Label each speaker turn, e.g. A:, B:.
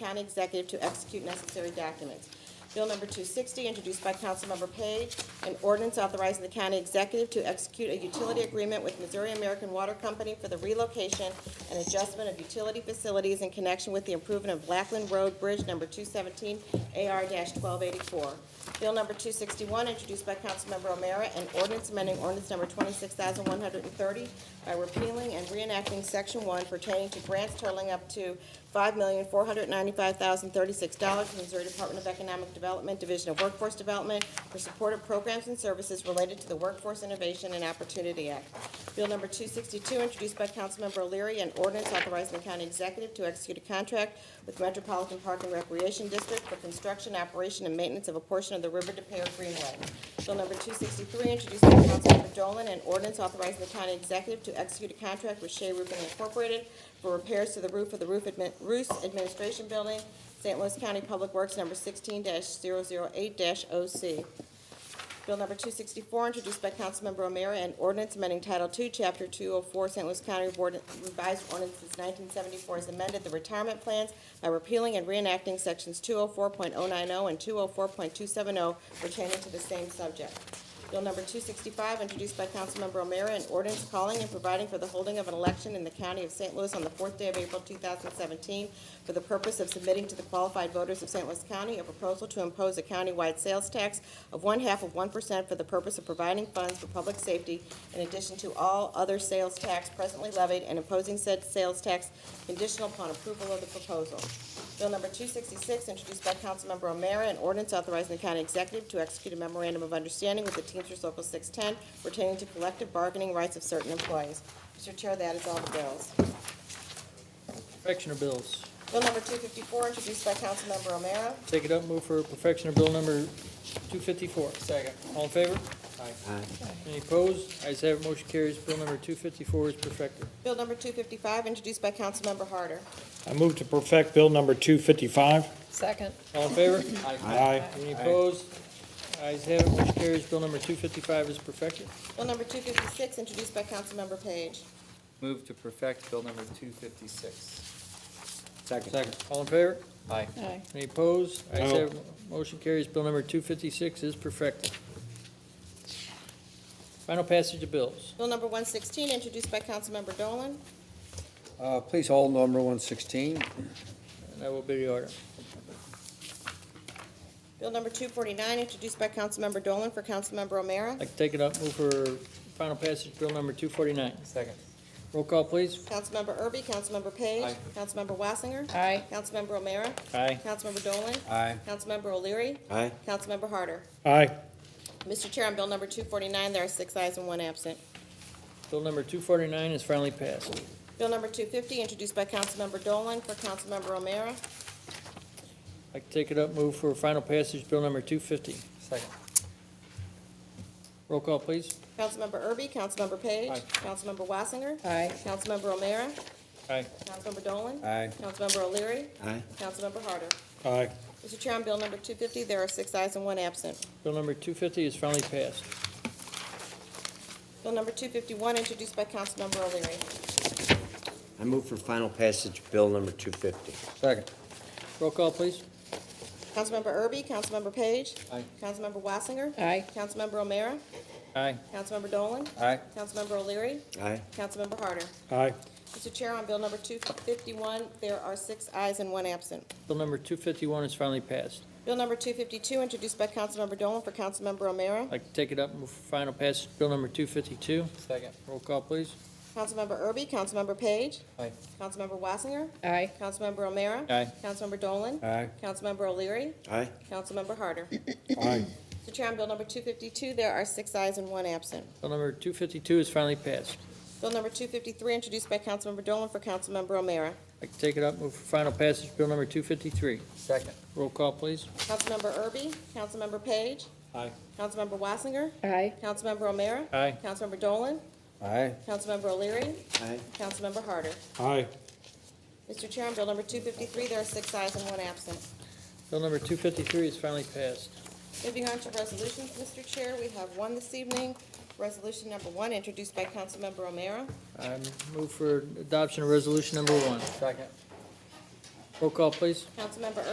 A: county executive to execute necessary documents. Bill number 260, introduced by Councilmember Page, an ordinance authorizing the county executive to execute a utility agreement with Missouri American Water Company for the relocation and adjustment of utility facilities in connection with the improvement of Blackland Road Bridge number 217, AR-1284. Bill number 261, introduced by Councilmember O'Meara, an ordinance amending ordinance number 26,130 by repealing and reenacting Section 1 pertaining to grants totaling up to $5,495,036 from the Missouri Department of Economic Development, Division of Workforce Development for supportive programs and services related to the Workforce Innovation and Opportunity Act. Bill number 262, introduced by Councilmember O'Leary, an ordinance authorizing the county executive to execute a contract with Metropolitan Park and Recreation District for construction, operation, and maintenance of a portion of the River De Pere Greenway. Bill number 263, introduced by Councilmember Dolan, an ordinance authorizing the county executive to execute a contract with Shea Roofing Incorporated for repairs to the roof of the Roof Admin- Roos Administration Building, St. Louis County Public Works number 16-008-OC. Bill number 264, introduced by Councilmember O'Meara, an ordinance amending Title II, Chapter 204, St. Louis County Board- Revised Ordinances 1974 as amended, the retirement plans by repealing and reenacting Sections 204.090 and 204.270 pertaining to the same subject. Bill number 265, introduced by Councilmember O'Meara, an ordinance calling and providing for the holding of an election in the county of St. Louis on the fourth day of April 2017 for the purpose of submitting to the qualified voters of St. Louis County a proposal to impose a countywide sales tax of one-half of 1% for the purpose of providing funds for public safety in addition to all other sales tax presently levied and imposing said sales tax conditional upon approval of the proposal. Bill number 266, introduced by Councilmember O'Meara, an ordinance authorizing the county executive to execute a memorandum of understanding with the Teamsters Local 610 pertaining to collective bargaining rights of certain employees. Mr. Chair, that is all the bills.
B: Perfection of bills.
A: Bill number 254, introduced by Councilmember O'Meara.
B: Take it up, move for perfection of bill number 254. Second. All in favor? Aye. Any opposed? Ayes have it, motion carries. Bill number 254 is perfected.
A: Bill number 255, introduced by Councilmember Harder.
C: I move to perfect Bill number 255.
D: Second,
B: All in favor?
C: Aye.
B: Any opposed? Ayes have it, motion carries. Bill number 255 is perfected.
A: Bill number 256, introduced by Councilmember Page.
E: Move to perfect Bill number 256.
B: Second. All in favor?
E: Aye.
D: aye,
B: Any opposed? Ayes
C: No.
B: have it, motion carries. Bill number 256 is perfected. Final passage of bills.
A: Bill number 116, introduced by Councilmember Dolan.
F: Uh, Please hold number 116.
B: And that will be the order.
A: Bill number 249, introduced by Councilmember Dolan for Councilmember O'Meara.
B: I can take it up, move for final passage, bill number 249.
E: Second.
B: Roll call, please.
A: Councilmember Erby, Councilmember Page.
E: Aye.
A: Councilmember Wassinger.
D: aye,
A: Councilmember O'Meara.
B: Aye.
A: Councilmember Dolan.
F: Aye.
A: Councilmember O'Leary.
F: Aye.
A: Councilmember Harder.
C: Aye.
A: Mr. Chair, on bill number 249, there are six ayes and one absent.
B: Bill number 249 is finally passed.
A: Bill number 250, introduced by Councilmember Dolan for Councilmember O'Meara.
B: I can take it up, move for final passage, bill number 250.
E: Second.
B: Roll call, please.
A: Councilmember Erby, Councilmember Page.
B: Aye.
A: Councilmember Wassinger.
D: aye,
A: Councilmember O'Meara.
B: Aye.
A: Councilmember Dolan.
F: Aye.
A: Councilmember O'Leary.
F: Aye.
A: Councilmember Harder.
C: Aye.
A: Mr. Chair, on bill number 250, there are six ayes and one absent.
B: Bill number 250 is finally passed.
A: Bill number 251, introduced by Councilmember O'Leary.
G: I move for final passage of Bill number 250.
F: Second.
B: Roll call, please.
A: Councilmember Erby, Councilmember Page.
E: Aye.
A: Councilmember Wassinger.
D: aye,
A: Councilmember O'Meara.
B: Aye.
A: Councilmember Dolan.
F: Aye.
A: Councilmember O'Leary.
G: Aye.
A: Councilmember Harder.
C: Aye.
A: Mr. Chair, on bill number 251, there are six ayes and one absent.
B: Bill number 251 is finally passed.
A: Bill number 252, introduced by Councilmember Dolan for Councilmember O'Meara.
B: I can take it up, move for final passage, bill number 252.
E: Second.
B: Roll call, please.
A: Councilmember Erby, Councilmember Page.
E: Aye.
A: Councilmember Wassinger.
D: aye,
A: Councilmember O'Meara.
B: Aye.
A: Councilmember Dolan.
F: Aye.
A: Councilmember O'Leary.
G: Aye.
A: Councilmember Harder.
C: Aye.
A: Mr. Chair, on bill number 252, there are six ayes and one absent.
B: Bill number 252 is finally passed.
A: Bill number 253, introduced by Councilmember Dolan for Councilmember O'Meara.
B: I can take it up, move for final passage, bill number 253.
E: Second.
B: Roll call, please.
A: Councilmember Erby, Councilmember Page.
B: Aye.
A: Councilmember Wassinger.
D: aye,
A: Councilmember O'Meara.
B: Aye.
A: Councilmember Dolan.
F: Aye.
A: Councilmember O'Leary.
G: Aye.
A: Councilmember Harder.
C: Aye.
A: Mr. Chair, on bill number 253, there are six ayes and one absent.
B: Bill number 253 is finally passed.
A: Moving on to resolutions, Mr. Chair, we have one this evening. Resolution number one, introduced by Councilmember O'Meara.
B: I move for adoption of resolution number one.
E: Second.
B: Roll call, please.
A: Councilmember